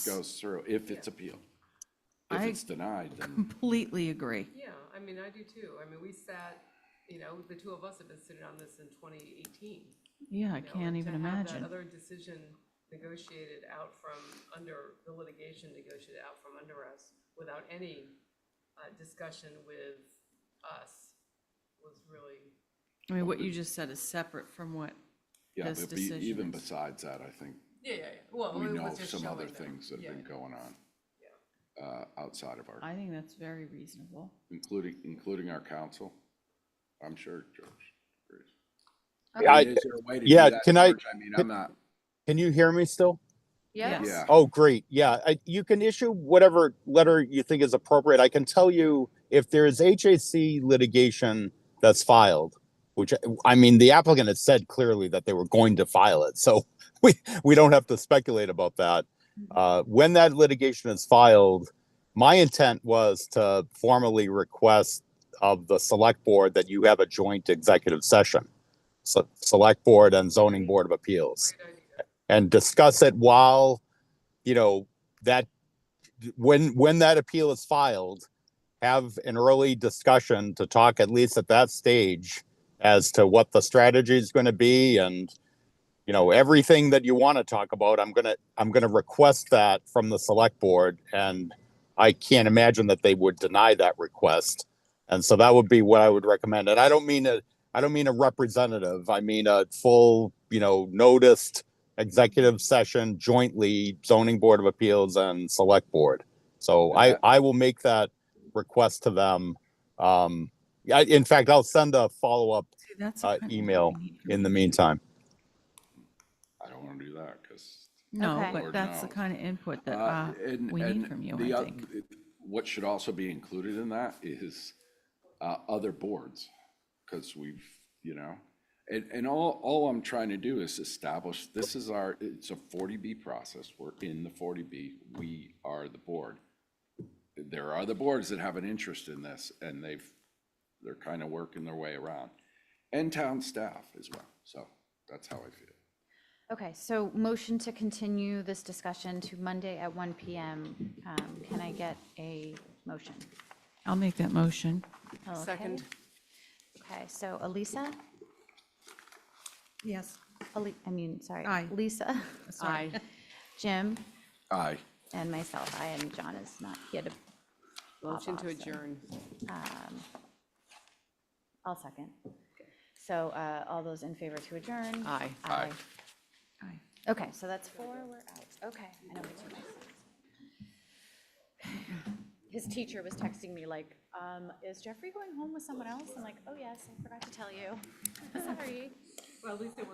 goes through, if it's appealed. If I- it's denied, then Completely agree. Yeah, I mean, I do too. I mean, we sat, you know, the two of us have been sitting on this in twenty eighteen. Yeah, I can't even To have that imagine. other decision negotiated out from under, the litigation negotiated out from under us without any uh, discussion with us was really, I mean, what you just said is separate from what, yeah, This but be- even decision is- besides that, I think yeah, yeah, well, we know of some other things that have been going on Yeah, uh, outside of our, I think that's very reasonable. including, including our council. I'm sure George agrees. Yeah, I- mean, is there a way to do yeah, that, can I- George? I mean, I'm not, Can you hear me still? Yes. yeah, Oh, great. Yeah, I, you can issue whatever letter you think is appropriate. I can tell you if there is HAC litigation that's filed, which I mean, the applicant had said clearly that they were going to file it, so we we don't have to speculate about that. Uh, when that litigation is filed, my intent was to formally request of the select board that you have a joint executive session, so select board and zoning board of appeals great idea. and discuss it while, you know, that, when, when that appeal is filed, have an early discussion to talk at least at that stage as to what the strategy is going to be and, you know, everything that you want to talk about, I'm gonna, I'm gonna request that from the select board and I can't imagine that they would deny that request. And so that would be what I would recommend. And I don't mean a, I don't mean a representative. I mean a full, you know, noticed executive session jointly zoning board of appeals and select board. So I, Okay. I will make that request to them. Um, I, in fact, I'll send a follow-up See, that's the uh, kind of thing we email need from in the meantime. I don't want to do that because No, Okay. but Or that's the no. kind of input that Uh, uh, and- we need and from you, the I oth- think. it- What should also be included in that is uh, other boards, because we've, you know, and, and all, all I'm trying to do is establish, this is our, it's a 40B process. We're in the 40B. We are the board. There are other boards that have an interest in this, and they've, they're kind of working their way around. And town staff as well. So that's how I feel. Okay, so motion to continue this discussion to Monday at 1 PM. Um, Can I get a motion? I'll make that motion. Okay. Second. Okay, so Elisa, Yes. Ali- I mean, sorry. Aye. Lisa, Aye. Jim, Aye. and myself, I, and John is not here to, Motion to adjourn. I'll second. So uh, all those in favor to adjourn? Aye. Aye. Aye. Okay, so that's four, we're out. Okay. I know it's nice. His teacher was texting me like, um, is Jeffrey going home with someone else? I'm like, oh yes, I forgot to tell you. Sorry. Well, at least it